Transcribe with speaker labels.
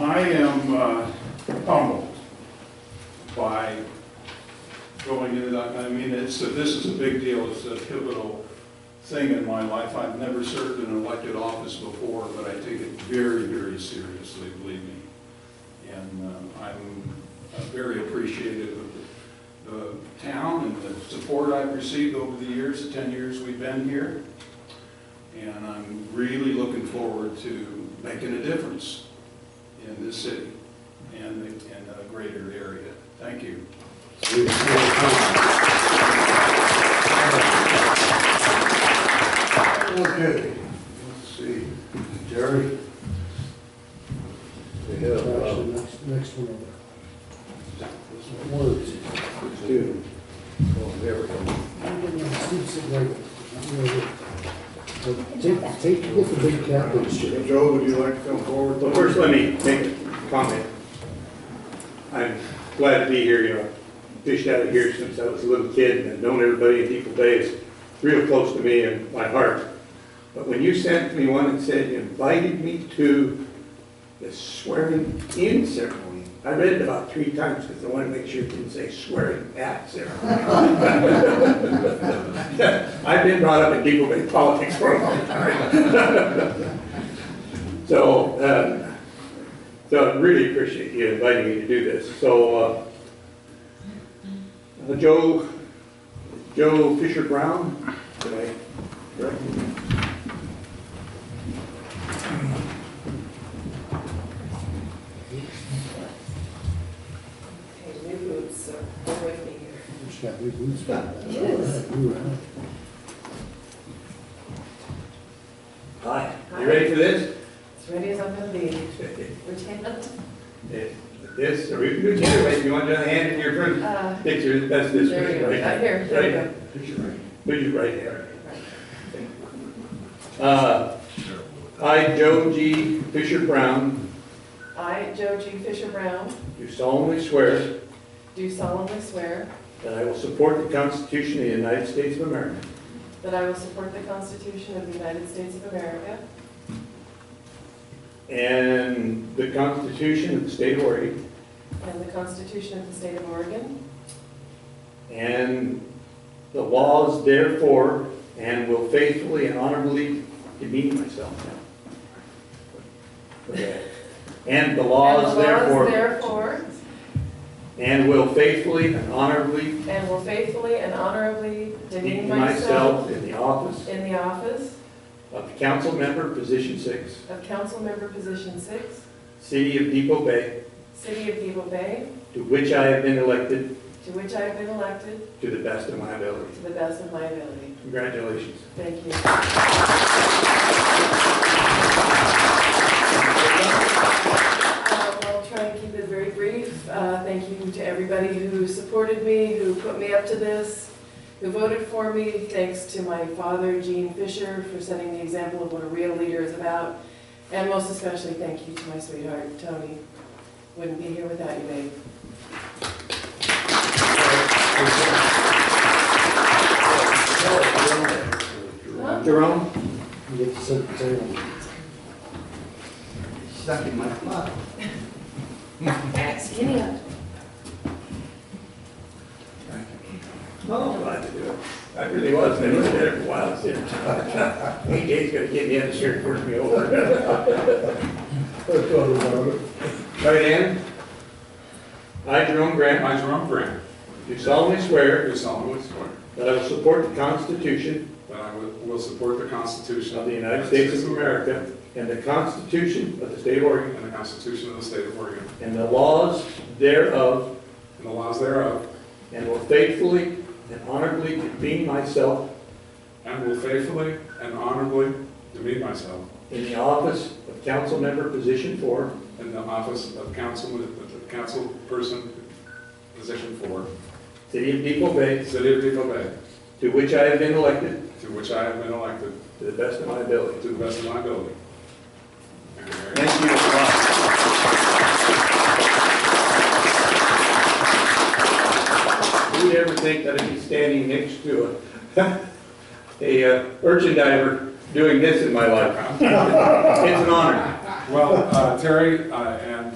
Speaker 1: I am uh, humbled by going into that. I mean, it's, this is a big deal. It's a pivotal thing in my life. I've never served in an elected office before, but I take it very, very seriously, believe me. And uh, I'm very appreciative of the town and the support I've received over the years, the 10 years we've been here. And I'm really looking forward to making a difference in this city and the- and the greater area. Thank you.
Speaker 2: Okay, let's see, Jerry? We have, uh,
Speaker 3: Actually, next, next one over. Words.
Speaker 2: two. Oh, there we go.
Speaker 3: I'm gonna have Steve sit right there. But Take, take, get the big cap and shit.
Speaker 2: Joe, would you like to come forward?
Speaker 4: Well, first, let me make a comment. I'm glad to be here, you know, fished out of here since I was a little kid, and I've known everybody in Depot Bay is real close to me and my heart. But when you sent me one and said you invited me to the swearing-in ceremony, I read it about three times because I wanted to make sure it didn't say swearing-at ceremony. I've been brought up in Depot Bay politics for a long time. So, uh,
Speaker 2: um,
Speaker 4: so I really appreciate you inviting me to do this. So, uh, uh, Joe, Joe Fisher Brown, did I correct?
Speaker 5: Okay, new boots, so bear with me here.
Speaker 3: She's got big boots back there.
Speaker 5: Yes.
Speaker 3: All right.
Speaker 2: Hi.
Speaker 5: Hi.
Speaker 2: You ready for this?
Speaker 5: As ready as I'm gonna be. Lieutenant,
Speaker 2: This, or we can do it either way. If you want to hand in your first
Speaker 5: uh,
Speaker 2: picture, that's this
Speaker 5: there you
Speaker 2: way,
Speaker 5: go,
Speaker 2: right?
Speaker 5: right here, there you go.
Speaker 2: Put you right there. Uh, I, Joe G. Fisher Brown,
Speaker 5: I, Joe G. Fisher Brown,
Speaker 2: do solemnly swear
Speaker 5: do solemnly swear
Speaker 2: that I will support the Constitution of the United States of America
Speaker 5: that I will support the Constitution of the United States of America
Speaker 2: And the Constitution of the State of Oregon.
Speaker 5: and the Constitution of the State of Oregon,
Speaker 2: And the laws therefore, and will faithfully and honorably demean myself now. And the laws
Speaker 5: and the laws
Speaker 2: therefore,
Speaker 5: therefore,
Speaker 2: and will faithfully and honorably
Speaker 5: and will faithfully and honorably demean
Speaker 2: demean
Speaker 5: myself
Speaker 2: myself in the office
Speaker 5: in the office
Speaker 2: of council member, position six,
Speaker 5: of council member position six,
Speaker 2: city of Depot Bay,
Speaker 5: city of Depot Bay,
Speaker 2: to which I have been elected
Speaker 5: to which I have been elected
Speaker 2: to the best of my ability.
Speaker 5: to the best of my ability.
Speaker 2: Congratulations.
Speaker 5: Thank you. Uh, Um, I'll try and keep it very brief. Uh, Thank you to everybody who supported me, who put me up to this, who voted for me. Thanks to my father, Gene Fisher, for setting the example of what a real leader is about. And most especially, thank you to my sweetheart, Tony. Wouldn't be here without you, babe. Huh?
Speaker 2: Jerome?
Speaker 3: You get to sit at the table.
Speaker 2: Stuck in my mouth.
Speaker 5: Skinny up.
Speaker 2: Oh, I'm glad to do it. I really was, been looking at it for a while, I said, hey, Dave's gonna get me out of here and push me over.
Speaker 3: Let's go, Robert.
Speaker 2: Right, Ann? I, Jerome Grant,
Speaker 6: I, Jerome Grant,
Speaker 2: do solemnly swear
Speaker 6: do solemnly swear
Speaker 2: that I will support the Constitution
Speaker 6: that I will will support the Constitution
Speaker 2: of the United States of America and the Constitution of the State of Oregon
Speaker 6: and the Constitution of the State of Oregon,
Speaker 2: and the laws thereof,
Speaker 6: and the laws thereof,
Speaker 2: and will faithfully and honorably demean myself
Speaker 6: and will faithfully and honorably demean myself
Speaker 2: in the office of council member, position four,
Speaker 6: in the office of council, council person, position four,
Speaker 2: city of Depot Bay,
Speaker 6: City of Depot Bay,
Speaker 2: to which I have been elected
Speaker 6: to which I have been elected
Speaker 2: to the best of my ability.
Speaker 6: to the best of my ability. Thank you very much.
Speaker 2: Thank you. Who'd ever think that I'd be standing next to a, a uh, urchin diver doing this in my life? It's an honor.
Speaker 6: Well, uh, Terry uh, and